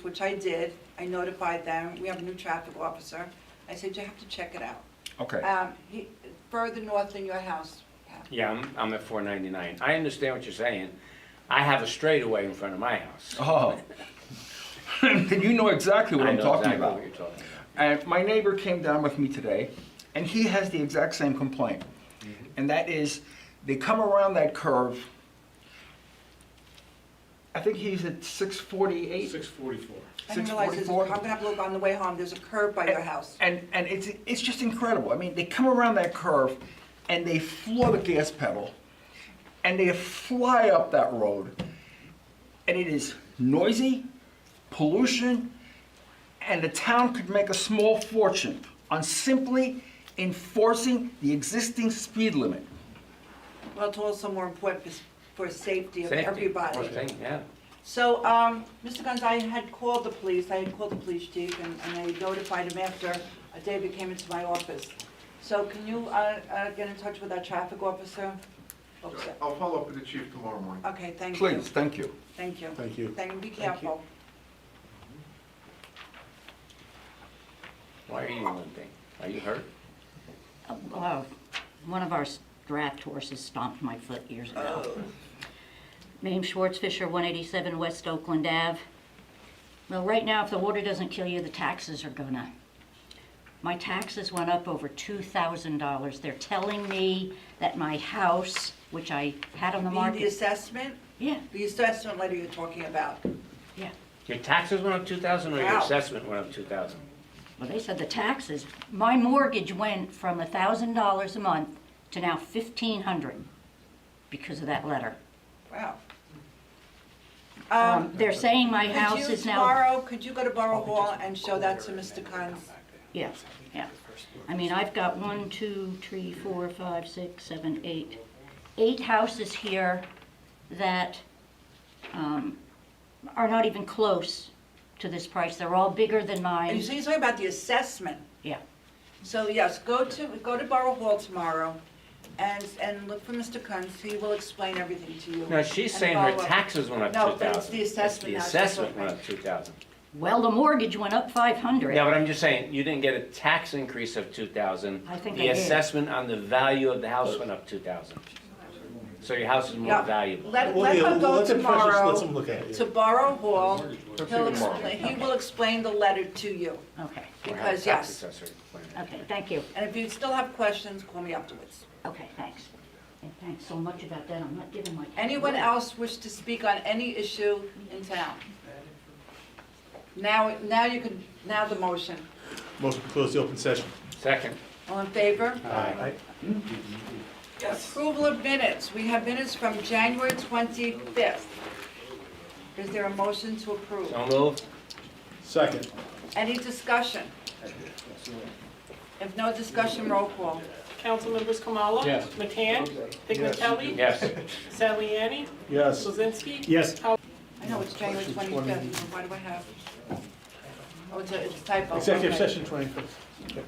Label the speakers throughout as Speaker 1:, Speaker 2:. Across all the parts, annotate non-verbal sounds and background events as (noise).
Speaker 1: which I did. I notified them. We have a new traffic officer. I said, you have to check it out.
Speaker 2: Okay,
Speaker 1: Um, he, further north than your house, Pat.
Speaker 3: Yeah, I'm, I'm at four ninety-nine. I understand what you're saying. I have a straightaway in front of my house.
Speaker 2: oh. (laughs) Then you know exactly what
Speaker 3: I
Speaker 2: I'm
Speaker 3: know
Speaker 2: talking
Speaker 3: exactly
Speaker 2: about.
Speaker 3: what you're talking about.
Speaker 2: And my neighbor came down with me today, and he has the exact same complaint. And that is, they come around that curve, I think he's at six forty-eight.
Speaker 4: Six forty-four.
Speaker 1: I didn't realize this, I'm
Speaker 2: 644.
Speaker 1: gonna have to look on the way home. There's a curb by your house.
Speaker 2: And, and it's, it's just incredible. I mean, they come around that curve and they floor the gas pedal and they fly up that road. And it is noisy, pollution, and the town could make a small fortune on simply enforcing the existing speed limit.
Speaker 1: Well, it's also more important for, for safety of
Speaker 3: Safety,
Speaker 1: everybody.
Speaker 3: poor thing, yeah.
Speaker 1: So, um, Mr. Guns, I had called the police, I had called the police chief, and, and I notified him after David came into my office. So can you, uh, uh, get in touch with our traffic officer? Oops,
Speaker 5: I'll follow up with the chief tomorrow morning.
Speaker 1: Okay, thank you.
Speaker 2: Please, thank you.
Speaker 1: Thank you.
Speaker 4: Thank you.
Speaker 1: Thank, be careful.
Speaker 3: Why are you limping? Are you hurt?
Speaker 6: Uh, One of our draft horses stomped my foot years ago. Named Schwartzfisher, 187 West Oakland Ave. Well, right now, if the water doesn't kill you, the taxes are gonna. My taxes went up over $2,000. They're telling me that my house, which I had on the
Speaker 1: The, the
Speaker 6: market.
Speaker 1: assessment,
Speaker 6: Yeah,
Speaker 1: the assessment letter you're talking about.
Speaker 6: yeah.
Speaker 3: Your taxes went up two thousand or your
Speaker 1: Wow.
Speaker 3: assessment went up two thousand?
Speaker 6: Well, they said the taxes, my mortgage went from $1,000 a month to now 1,500 because of that letter.
Speaker 1: Wow.
Speaker 6: Um,
Speaker 1: Um,
Speaker 6: they're saying my house
Speaker 1: could you
Speaker 6: is now,
Speaker 1: tomorrow, could you go to Borough Hall and show that to Mr. Guns?
Speaker 6: yeah, yeah. I mean, I've got one, two, three, four, five, six, seven, eight, eight houses here that, um, are not even close to this price. They're all bigger than
Speaker 1: And
Speaker 6: mine.
Speaker 1: so you're talking about the assessment.
Speaker 6: Yeah,
Speaker 1: So yes, go to, go to Borough Hall tomorrow and, and look for Mr. Kunz. He will explain everything to you.
Speaker 3: No, she's
Speaker 1: And
Speaker 3: saying her
Speaker 1: follow up.
Speaker 3: taxes went up two
Speaker 1: No,
Speaker 3: thousand.
Speaker 1: but it's the assessment now, it's
Speaker 3: assessment
Speaker 1: different.
Speaker 3: went up two thousand.
Speaker 6: well, the mortgage went up five hundred.
Speaker 3: Yeah, but I'm just saying, you didn't get a tax increase of two thousand.
Speaker 6: I think I
Speaker 3: The
Speaker 6: did.
Speaker 3: assessment on the value of the house went up two thousand. So your house is more
Speaker 1: Yeah.
Speaker 3: valuable.
Speaker 1: Let, let her go tomorrow
Speaker 4: look at it.
Speaker 1: to Borough Hall. He'll
Speaker 3: tomorrow.
Speaker 1: explain, he will explain the letter to you.
Speaker 6: Okay,
Speaker 3: Or have a
Speaker 1: Because,
Speaker 3: tax
Speaker 1: yes,
Speaker 3: assessor explain it.
Speaker 6: okay, thank you.
Speaker 1: and if you still have questions, call me afterwards.
Speaker 6: Okay, thanks. And thanks so much about that. I'm not giving my.
Speaker 1: Anyone else wish to speak on any issue in town? Now, now you can, now the motion.
Speaker 4: Motion to close the open session.
Speaker 3: Second.
Speaker 1: All in favor?
Speaker 4: Aye.
Speaker 1: Approval of minutes. We have minutes from January 25th. Is there a motion to approve?
Speaker 3: So moved.
Speaker 4: Second.
Speaker 1: Any discussion? If no discussion, roll call.
Speaker 7: Councilmembers Kamala?
Speaker 4: Yes.
Speaker 7: McCann? Pignatelli?
Speaker 3: Yes.
Speaker 7: Saliani?
Speaker 4: Yes.
Speaker 7: Kuzinski?
Speaker 4: Yes.
Speaker 1: I know it's January 25th, but why do I have? Oh, it's a it's a typo.
Speaker 4: Executive
Speaker 1: Okay.
Speaker 4: session twenty-fifth.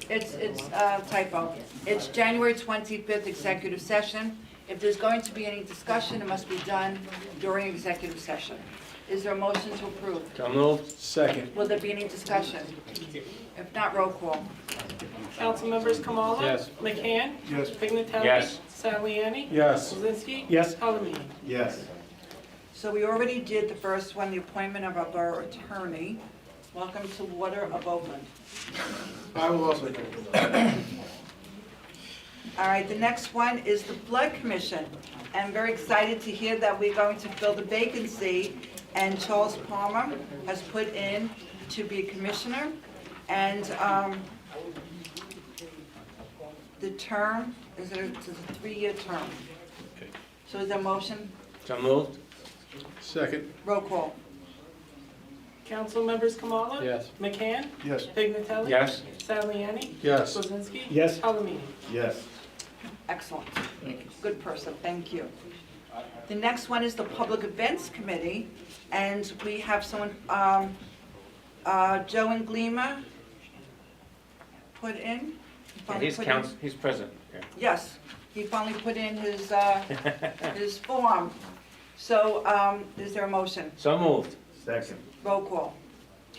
Speaker 1: It's, it's uh, typo. It's January 25th, executive session. If there's going to be any discussion, it must be done during executive session. Is there a motion to approve?
Speaker 3: So moved.
Speaker 4: Second.
Speaker 1: Will there be any discussion? If not, roll call.
Speaker 7: Councilmembers Kamala?
Speaker 4: Yes.
Speaker 7: McCann?
Speaker 4: Yes.
Speaker 7: Pignatelli?
Speaker 3: Yes.
Speaker 7: Saliani?
Speaker 4: Yes.
Speaker 7: Kuzinski?
Speaker 4: Yes.
Speaker 7: Palomino?
Speaker 4: Yes.
Speaker 1: So we already did the first one, the appointment of our borough attorney. Welcome to Water of Oakland.
Speaker 5: I will also do
Speaker 1: All right, the next one is the Flood Commission. I'm very excited to hear that we're going to fill the vacancy, and Charles Palmer has put in to be commissioner, and um, the term, is it it's a three-year term? So is there a motion?
Speaker 3: So moved.
Speaker 4: Second.
Speaker 1: Roll call.
Speaker 7: Councilmembers Kamala?
Speaker 4: Yes.
Speaker 7: McCann?
Speaker 4: Yes.
Speaker 7: Pignatelli?
Speaker 3: Yes.
Speaker 7: Saliani?
Speaker 4: Yes.
Speaker 7: Kuzinski?
Speaker 4: Yes.
Speaker 7: Palomino?
Speaker 4: Yes.
Speaker 1: Excellent. Good person, thank you. The next one is the Public Events Committee, and we have someone, um, uh, Joe and Glima put in. He
Speaker 3: And
Speaker 1: finally
Speaker 3: he's
Speaker 1: put in-
Speaker 3: counsel, he's present. Yeah.
Speaker 1: Yes, he finally put in his,
Speaker 3: (laughs)
Speaker 1: uh, his form. So, um, is there a motion?
Speaker 3: So moved.
Speaker 4: Second.
Speaker 1: Roll call.